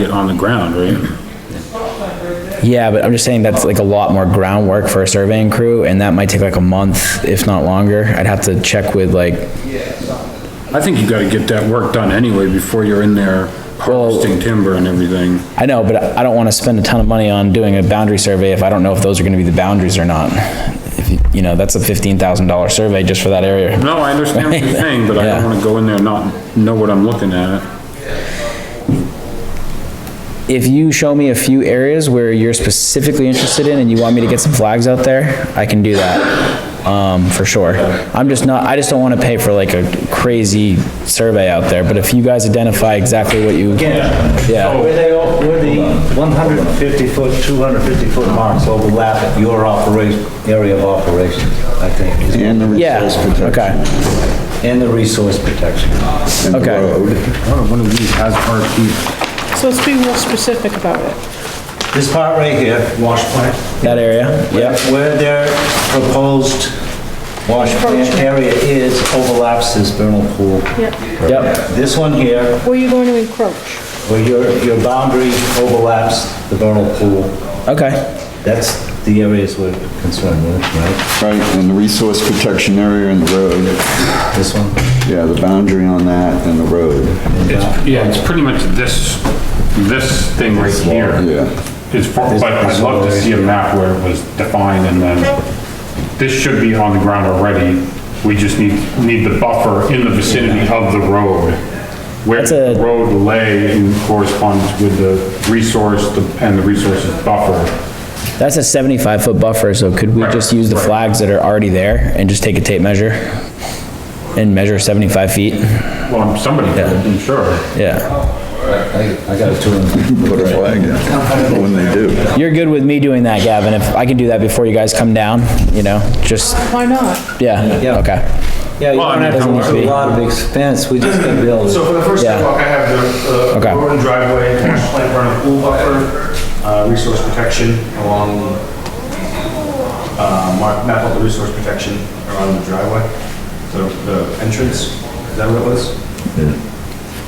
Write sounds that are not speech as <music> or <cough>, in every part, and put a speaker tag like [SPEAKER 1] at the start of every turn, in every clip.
[SPEAKER 1] it on the ground, right?
[SPEAKER 2] Yeah, but I'm just saying that's like a lot more groundwork for a surveying crew, and that might take like a month, if not longer. I'd have to check with like,
[SPEAKER 1] I think you gotta get that work done anyway before you're in there harvesting timber and everything.
[SPEAKER 2] I know, but I don't wanna spend a ton of money on doing a boundary survey if I don't know if those are gonna be the boundaries or not. If you- You know, that's a fifteen thousand dollar survey just for that area.
[SPEAKER 1] No, I understand what <laughs> you're saying, but I
[SPEAKER 2] Yeah.
[SPEAKER 1] don't wanna go in there and not know what I'm looking at.
[SPEAKER 2] If you show me a few areas where you're specifically interested in and you want me to get some flags out there, I can do that, um, for sure. I'm just not, I just don't wanna pay for like a crazy survey out there, but if you guys identify exactly what you. Yeah.
[SPEAKER 3] Where they, all- where the 150 foot, 250 foot marks overlap your operation, area of operation, I think. is-
[SPEAKER 4] And the
[SPEAKER 2] Yeah,
[SPEAKER 4] resource protection.
[SPEAKER 2] okay,
[SPEAKER 3] And the resource protection.
[SPEAKER 4] and the
[SPEAKER 2] okay.
[SPEAKER 4] road.
[SPEAKER 1] Oh, One of these has RP.
[SPEAKER 5] So let's be more specific about it.
[SPEAKER 3] This part right here, wash plant.
[SPEAKER 2] that area,
[SPEAKER 3] Where-
[SPEAKER 2] yep,
[SPEAKER 3] Where their proposed wash plant area is overlaps this vernal pool.
[SPEAKER 5] Yeah.
[SPEAKER 2] yep,
[SPEAKER 3] This one here,
[SPEAKER 5] Where you going to encroach?
[SPEAKER 3] where your, your boundary overlaps the vernal pool,
[SPEAKER 2] okay,
[SPEAKER 3] that's the areas we're concerned with, right?
[SPEAKER 4] Right, and the resource protection area and the road.
[SPEAKER 3] This one?
[SPEAKER 4] Yeah, the boundary on that and the road.
[SPEAKER 1] Yeah, it's pretty much this, this thing right here.
[SPEAKER 4] Yeah.
[SPEAKER 1] It's, for- but I'd love to see a map where it was defined and then this should be on the ground already. We just need, need the buffer in the vicinity of the road. Where
[SPEAKER 2] That's a-
[SPEAKER 1] the road lay in correspondence with the resource the- and the resources buffer.
[SPEAKER 2] that's a seventy-five foot buffer, so could we just use the flags that are already there and just take a tape measure? And measure seventy-five feet,
[SPEAKER 1] Well, somebody, did, I'm sure.
[SPEAKER 2] yeah,
[SPEAKER 3] I, I got a two and,
[SPEAKER 4] Put a flag in when they do.
[SPEAKER 2] you're good with me doing that, Gavin, if I can do that before you guys come down, you know, just,
[SPEAKER 5] Why not?
[SPEAKER 2] yeah,
[SPEAKER 3] Yeah.
[SPEAKER 2] okay,
[SPEAKER 3] yeah, you
[SPEAKER 1] Well, I
[SPEAKER 3] don't
[SPEAKER 1] mean,
[SPEAKER 3] have to
[SPEAKER 1] how
[SPEAKER 3] go
[SPEAKER 1] much-
[SPEAKER 3] through a lot of expense, we just gotta be able to.
[SPEAKER 6] So for the first
[SPEAKER 2] Yeah.
[SPEAKER 6] sidewalk, I have the,
[SPEAKER 2] Okay.
[SPEAKER 6] uh, road and driveway, wash plant, burn and pool buffer, uh, resource protection along, uh, mark, map out the resource protection around the driveway, the, the entrance, is that what it was?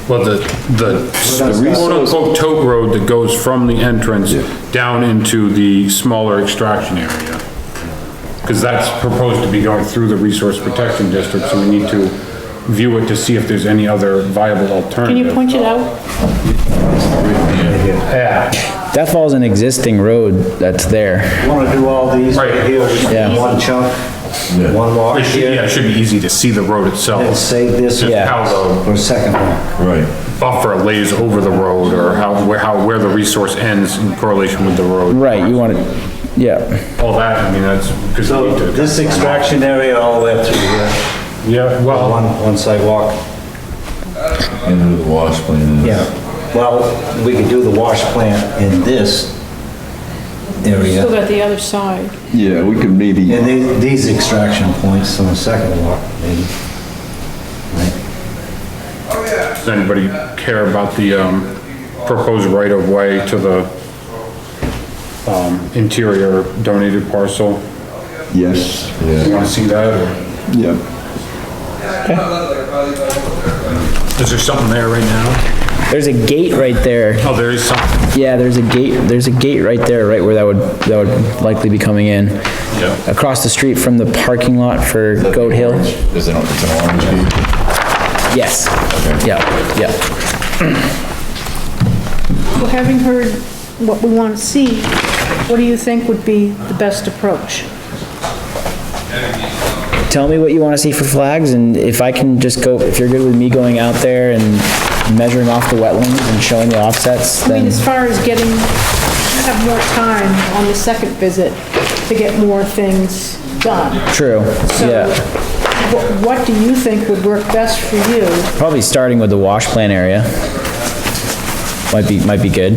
[SPEAKER 1] Well, the, the quote-unquote tote road that goes from the entrance down into the smaller extraction area. Because that's proposed to be going through the resource protection district, so we need to view it to see if there's any other viable
[SPEAKER 5] Can
[SPEAKER 1] alternative.
[SPEAKER 5] you point it out?
[SPEAKER 1] Yeah,
[SPEAKER 2] that falls an existing road that's there,
[SPEAKER 3] Wanna do all these right
[SPEAKER 1] Right.
[SPEAKER 3] here,
[SPEAKER 2] Yeah.
[SPEAKER 3] in one chunk, one walk
[SPEAKER 1] it should, yeah,
[SPEAKER 3] here,
[SPEAKER 1] it should be easy to see the road
[SPEAKER 3] and
[SPEAKER 1] itself.
[SPEAKER 3] save this
[SPEAKER 1] Just
[SPEAKER 2] Yeah.
[SPEAKER 1] how the
[SPEAKER 3] for a second one.
[SPEAKER 4] Right.
[SPEAKER 1] buffer lays over the road, or how, where, how, where the resource ends in correlation with the road.
[SPEAKER 2] right, you want it, yeah,
[SPEAKER 1] All that, I mean, that's, because.
[SPEAKER 3] So this extraction area all the way up through here,
[SPEAKER 1] Yeah, well.
[SPEAKER 3] one, one sidewalk.
[SPEAKER 7] into the wash plant.
[SPEAKER 3] Yeah, well, we could do the wash plant in this
[SPEAKER 5] Still
[SPEAKER 3] area,
[SPEAKER 5] got the other side.
[SPEAKER 4] Yeah, we could maybe.
[SPEAKER 3] and the- these extraction points on the second walk, maybe.
[SPEAKER 1] Does anybody care about the, um, proposed right-of-way to the, um, interior donated parcel?
[SPEAKER 4] Yes,
[SPEAKER 1] You
[SPEAKER 4] yeah,
[SPEAKER 1] wanna see that, or
[SPEAKER 4] yeah.
[SPEAKER 1] is there something there right now?
[SPEAKER 2] there's a gate right there.
[SPEAKER 1] Oh, there is something.
[SPEAKER 2] Yeah, there's a gate, there's a gate right there, right where that would, that would likely be coming in.
[SPEAKER 1] Yeah.
[SPEAKER 2] Across the street from the parking lot for Goat Hill.
[SPEAKER 7] Is it, it's an orange bead?
[SPEAKER 2] Yes. Yeah, yeah.
[SPEAKER 5] Well, having heard what we want to see, what do you think would be the best approach?
[SPEAKER 2] Tell me what you wanna see for flags and if I can just go, if you're good with me going out there and measuring off the wetlands and showing the offsets,
[SPEAKER 5] I mean,
[SPEAKER 2] then,
[SPEAKER 5] as far as getting, have more time on the second visit to get more things done.
[SPEAKER 2] true,
[SPEAKER 5] So
[SPEAKER 2] yeah.
[SPEAKER 5] wh- What do you think would work best for you?
[SPEAKER 2] Probably starting with the wash plant area. Might be, might be good.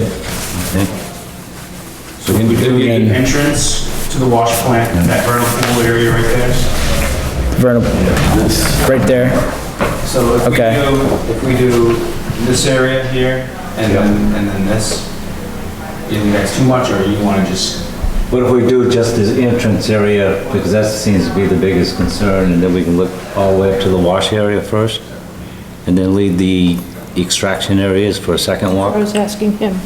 [SPEAKER 6] So we could do the entrance to the wash plant, that vernal pool area right there.
[SPEAKER 2] Vernal, right there.
[SPEAKER 6] So if we
[SPEAKER 2] Okay.
[SPEAKER 6] do, if we do this area here, and then, and then this, you think that's too much, or you wanna just
[SPEAKER 3] What if we do just this entrance area, because that seems to be the biggest concern, and then we can look all the way up to the wash area first? And then leave the extraction area is for a second walk?
[SPEAKER 5] I was asking him.